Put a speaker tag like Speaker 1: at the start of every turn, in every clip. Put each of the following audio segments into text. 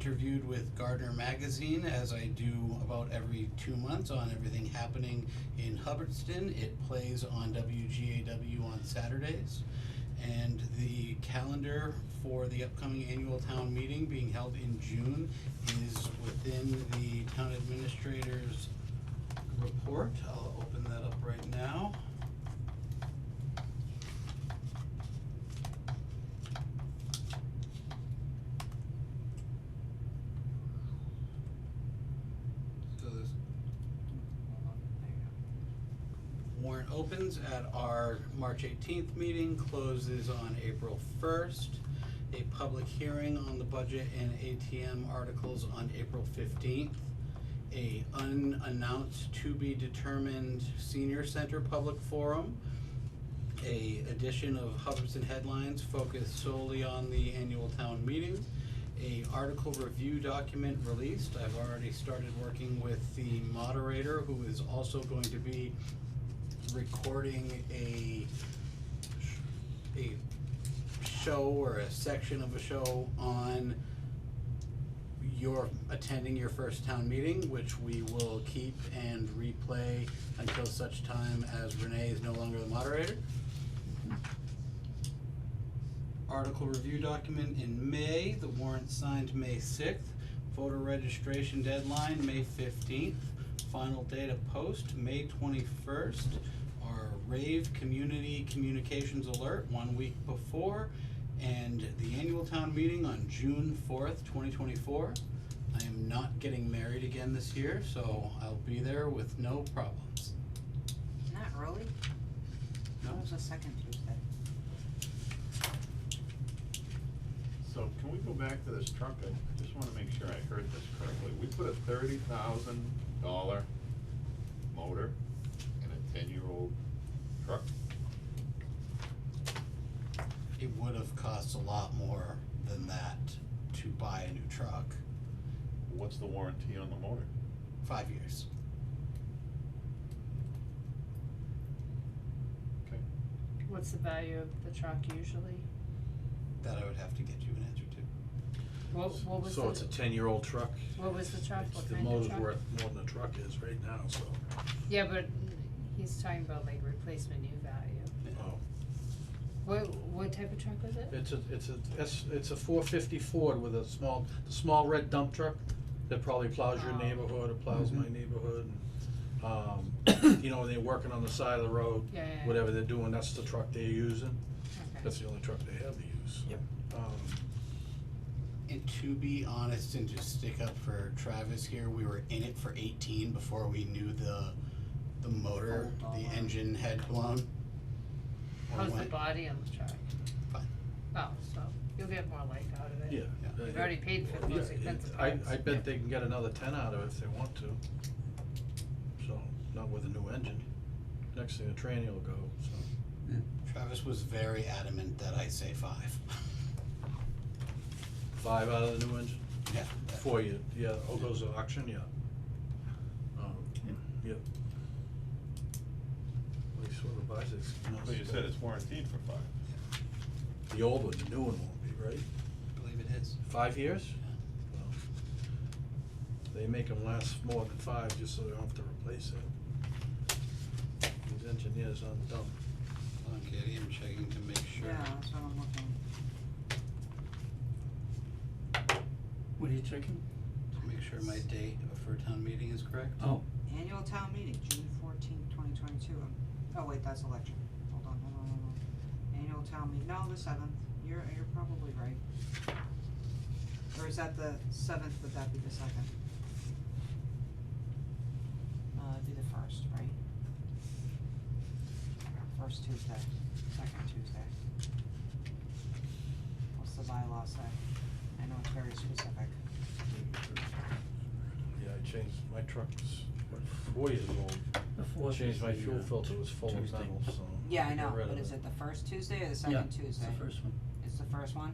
Speaker 1: interviewed with Gardner Magazine, as I do about every two months, on everything happening in Hubbardston. It plays on WGAW on Saturdays. And the calendar for the upcoming annual town meeting being held in June is within the town administrator's report. I'll open that up right now. So this warrant opens at our March eighteenth meeting, closes on April first. A public hearing on the budget and ATM articles on April fifteenth. A unannounced to be determined senior center public forum. A edition of Hubbardston Headlines focused solely on the annual town meeting a article review document released. I've already started working with the moderator, who is also going to be recording a a show or a section of a show on your attending your first town meeting, which we will keep and replay until such time as Renee is no longer the moderator article review document in May, the warrant signed May sixth, voter registration deadline, May fifteenth, final date of post, May twenty-first, our rave community communications alert, one week before, and the annual town meeting on June fourth, twenty twenty-four. I am not getting married again this year, so I'll be there with no problems.
Speaker 2: Not really?
Speaker 1: No,
Speaker 2: It was the second Tuesday.
Speaker 3: So can we go back to this truck? I just wanna make sure I heard this correctly. We put a thirty thousand dollar motor in a ten-year-old truck?
Speaker 1: it would have cost a lot more than that to buy a new truck.
Speaker 3: What's the warranty on the motor?
Speaker 1: Five years.
Speaker 3: Okay.
Speaker 4: What's the value of the truck usually?
Speaker 1: That I would have to get you an answer to.
Speaker 4: What, what was the?
Speaker 5: So it's a ten-year-old truck?
Speaker 4: What was the truck?
Speaker 5: It's-
Speaker 4: What
Speaker 5: The
Speaker 4: kind of
Speaker 5: motor's
Speaker 4: truck?
Speaker 5: worth more than the truck is right now, so,
Speaker 4: Yeah, but he's talking about like replacement new value.
Speaker 5: oh.
Speaker 4: What, what type of truck was it?
Speaker 5: It's a, it's a, it's, it's a four fifty Ford with a small, the small red dump truck that probably plows your
Speaker 4: Oh.
Speaker 5: neighborhood, it plows my neighborhood. Um, you know, they're working on the side of the road,
Speaker 4: Yeah, yeah, yeah.
Speaker 5: whatever they're doing, that's the truck they're using.
Speaker 4: Okay.
Speaker 5: That's the only truck they have to use. Yep. Um,
Speaker 1: And to be honest and just stick up for Travis here, we were in it for eighteen before we knew the the motor,
Speaker 2: Full
Speaker 1: the
Speaker 2: dollar.
Speaker 1: engine had blown. Or
Speaker 4: How's the
Speaker 1: went-
Speaker 4: body on the truck?
Speaker 1: Fine.
Speaker 4: Oh, so you'll get more life out of it.
Speaker 5: Yeah.
Speaker 1: Yeah.
Speaker 4: You've already paid for the
Speaker 5: Yeah,
Speaker 4: most
Speaker 5: it-
Speaker 4: expensive
Speaker 5: I,
Speaker 4: parts.
Speaker 5: I
Speaker 1: Yep.
Speaker 5: bet they can get another ten out of it if they want to. So, not with a new engine. Next thing, the tranny will go, so.
Speaker 1: Travis was very adamant that I say five.
Speaker 5: Five out of the new engine,
Speaker 1: Yeah. that-
Speaker 5: four, you, yeah, all goes to auction, yeah. Um, yep. At least whoever buys it's.
Speaker 3: So you said it's warranted for five.
Speaker 5: The old one, the new one won't be, right?
Speaker 1: I believe it is.
Speaker 5: Five years?
Speaker 1: Yeah.
Speaker 5: Well, They make them last more than five, just so they don't have to replace it. These engineers aren't dumb.
Speaker 1: Hold on, Katie, I'm checking to make sure.
Speaker 2: Yeah, that's what I'm looking.
Speaker 6: What are you checking?
Speaker 1: To make sure my date for town meeting is correct.
Speaker 6: Oh,
Speaker 2: Annual town meeting, June fourteenth, twenty twenty-two. Oh, wait, that's election. Hold on, hold on, hold on. Annual town meeting, no, the seventh. You're, you're probably right. Or is that the seventh, would that be the second? Uh, it'd be the first, right? First Tuesday, second Tuesday. What's the bylaw say? I know it's very specific.
Speaker 5: Yeah, I changed, my truck's, what, four years old,
Speaker 6: the fourth is
Speaker 5: changed my
Speaker 6: the,
Speaker 5: fuel
Speaker 6: uh,
Speaker 5: filter, it was full of
Speaker 6: Tuesday.
Speaker 5: metals, so.
Speaker 2: Yeah, I
Speaker 5: got
Speaker 2: know,
Speaker 5: rid
Speaker 2: but
Speaker 5: of
Speaker 2: is
Speaker 5: it.
Speaker 2: it the first Tuesday or the
Speaker 6: Yeah,
Speaker 2: second Tuesday?
Speaker 6: it's the first one.
Speaker 2: It's the first one?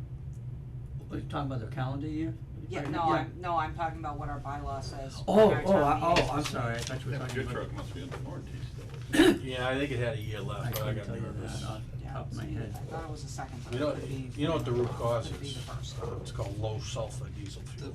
Speaker 6: Are you talking about the calendar year?
Speaker 2: Yeah,
Speaker 6: Right,
Speaker 2: no, I'm, no, I'm talking about what our bylaw says.
Speaker 6: Oh,
Speaker 2: for our
Speaker 6: oh, I-
Speaker 2: town meeting.
Speaker 6: oh, I'm sorry, I thought you were
Speaker 3: Yeah, but
Speaker 6: talking
Speaker 3: your
Speaker 6: about.
Speaker 3: truck must be under warranty still.
Speaker 5: Yeah, I think it had a year
Speaker 6: I
Speaker 5: left, but I
Speaker 6: couldn't
Speaker 5: got
Speaker 6: tell you
Speaker 5: nervous.
Speaker 6: that uh, off the
Speaker 2: Yeah,
Speaker 6: top of my head.
Speaker 2: I thought it was the second, but
Speaker 5: You
Speaker 2: it
Speaker 5: know,
Speaker 2: could be.
Speaker 5: you know what the root cause
Speaker 2: Could be
Speaker 5: is?
Speaker 2: the first.
Speaker 5: It's called low sulfur diesel
Speaker 1: The
Speaker 5: fuel.